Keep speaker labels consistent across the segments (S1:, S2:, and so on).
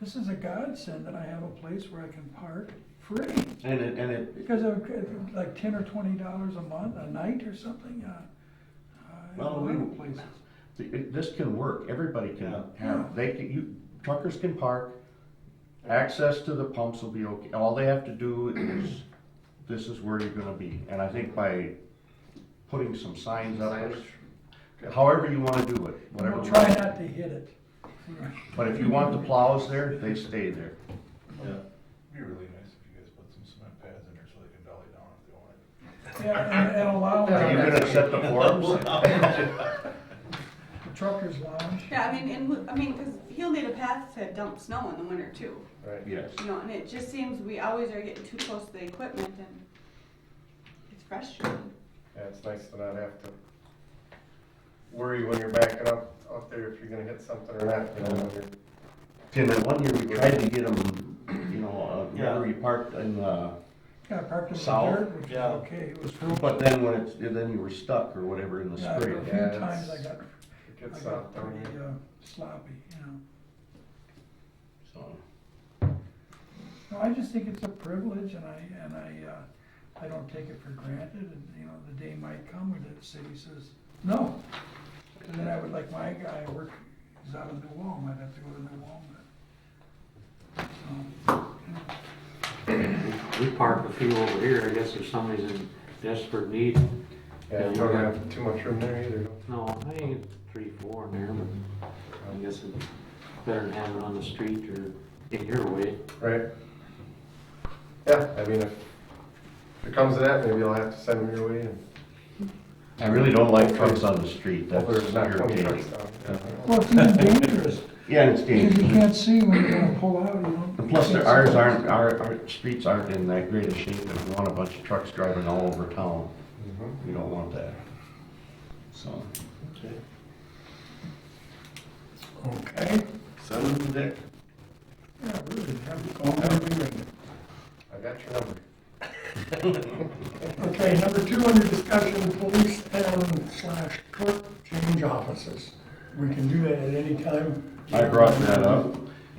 S1: this is a godsend that I have a place where I can park free.
S2: And it, and it,
S1: Because of uh, like ten or twenty dollars a month, a night or something, uh, uh, in a
S2: Well,
S1: lot
S2: we-
S1: of places.
S2: th- it- this can work, everybody
S3: Yeah.
S2: can have, they can, you, truckers can park, access to the pumps will be okay, all they have to do is, this is where you're gonna be, and I think by putting some signs up, however you wanna do it, whatever.
S1: We'll try not to hit it.
S2: But if you want the plows there, they stay there.
S3: Be really nice if you guys put some cement pads in there so they can dolly down if they want it.
S1: Yeah, and- and allow
S2: Are you
S1: the
S2: gonna set the forums?
S1: truckers lounge.
S4: Yeah, I mean, and, we- I mean, cause he'll need a path to dump snow in the winter too,
S3: Right.
S2: Yes.
S4: you know, and it just seems we always are getting too close to the equipment and it's frustrating.
S5: Yeah, it's nice to not have to worry when you're backing up out there if you're gonna hit something or not, you know, when you're
S2: Tim, and one year we tried to get them, you know, uh, remember you parked in, uh,
S1: Got parked in the
S2: South?
S1: dirt, which is
S3: Yeah.
S1: okay. It was,
S2: but then when it's, then you were stuck or whatever in the
S1: yeah, there
S2: street.
S1: were a few
S5: Yeah,
S1: times I
S5: it's-
S1: got,
S5: it
S1: I
S5: gets
S1: got
S5: out there.
S1: pretty uh, sloppy, you know.
S2: So,
S1: No, I just think it's a privilege and I, and I, uh, I don't take it for granted and, you know, the day might come when the city says, no. And then I would like my guy, I work, he's out of New Ulm, I'd have to go to New Ulm, but. so,
S6: We parked a few over here, I guess if somebody's in desperate need,
S5: Yeah, you don't have too much room there either.
S6: no, I think it's three, four in there, but I guess it's better than having it on the street or in your way.
S5: Right. Yeah, I mean, if it comes to that, maybe I'll have to send them your way and
S2: I really don't like trucks on the street, that's
S5: hope there's not twenty trucks
S2: irritating.
S5: down.
S1: Well, it's even dangerous,
S2: Yeah, and it's
S1: because you
S2: dangerous.
S1: can't see when you're gonna pull out, you know.
S2: And plus, there- ours aren't, our, our streets aren't in that great a shape if you want a bunch of trucks driving all over town.
S5: Mhm.
S2: You don't want that. So,
S1: Okay.
S3: Send them Dick.
S1: Yeah, really, have to call them and ring
S5: I got your number.
S1: them. Okay, number two under discussion, police town slash clerk change offices. We can do that at any time.
S2: I brought that up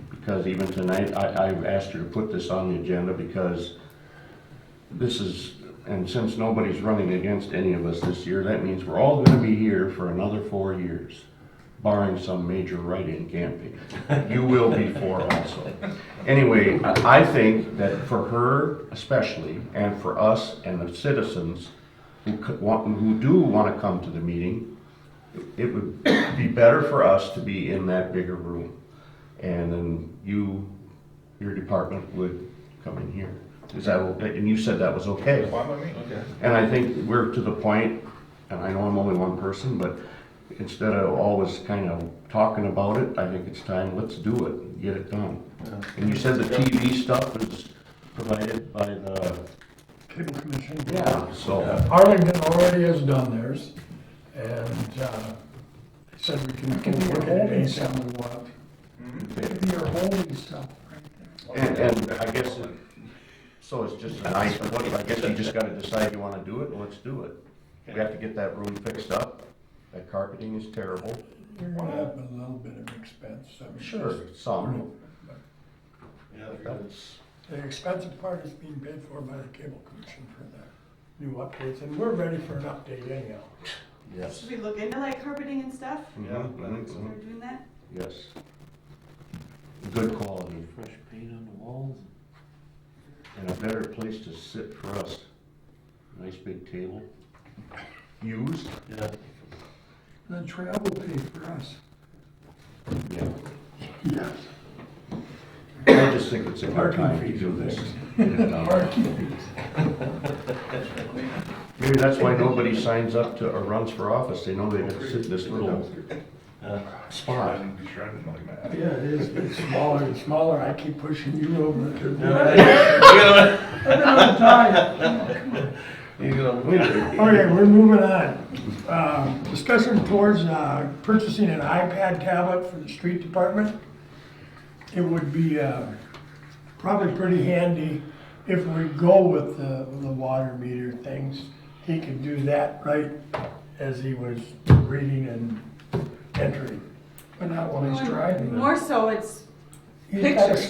S2: because even tonight, I, I asked her to put this on the agenda because this is, and since nobody's running against any of us this year, that means we're all gonna be here for another four years, barring some major write-in campaign. You will be four also. Anyway, I I think that for her especially, and for us and the citizens who could, want- who do wanna come to the meeting, it would be better for us to be in that bigger room. And then you, your department would come in here. Is that, and you said that was okay.
S3: Why by me? Okay.
S2: And I think we're to the point, and I know I'm only one person, but instead of always kind of talking about it, I think it's time, let's do it, get it done. And you said the TV stuff is provided by the,
S7: Cable Commission.
S2: yeah, so,
S7: Arlington already has done theirs, and, uh, said we can
S1: Can we
S7: look at
S1: hold
S7: it
S1: it?
S7: anytime we want.
S1: Maybe you're holding stuff right there.
S2: and, and I guess, it- so it's just a nice, what, I guess you just gotta decide you wanna do it, and let's do it. We have to get that room fixed up, that carpeting is terrible.
S7: You're gonna have a little bit of expense, I mean.
S2: Sure, some,
S3: Yeah,
S2: but that's,
S7: The expensive part is being paid for by the Cable Commission for the new updates, and we're ready for an update anyhow.
S2: yes.
S4: Should we look into like carpeting and stuff?
S2: Yeah, I think so.
S4: Start doing that?
S2: Yes. Good quality
S6: Fresh paint on the walls.
S2: and a better place to sit for us. Nice big table. Used?
S6: Yeah.
S1: Then travel pay for us.
S2: Yeah. I just think it's a hard time to do this. uh, Maybe that's why nobody signs up to, or runs for office. They know they have to sit in this little uh, spot.
S3: Shredding, be shredding like mad.
S7: Yeah, it is, it's smaller and smaller, I keep pushing you over to
S2: You know,
S7: Okay, we're moving on. Uh, Discussion towards uh, purchasing an iPad tablet for the street department. It would be uh, probably pretty handy if we go with the, the water meter things. He could do that right as he was reading and entering.
S1: But not while he's
S4: Well,
S1: driving.
S4: More so, it's
S7: He's got a
S4: Pictures.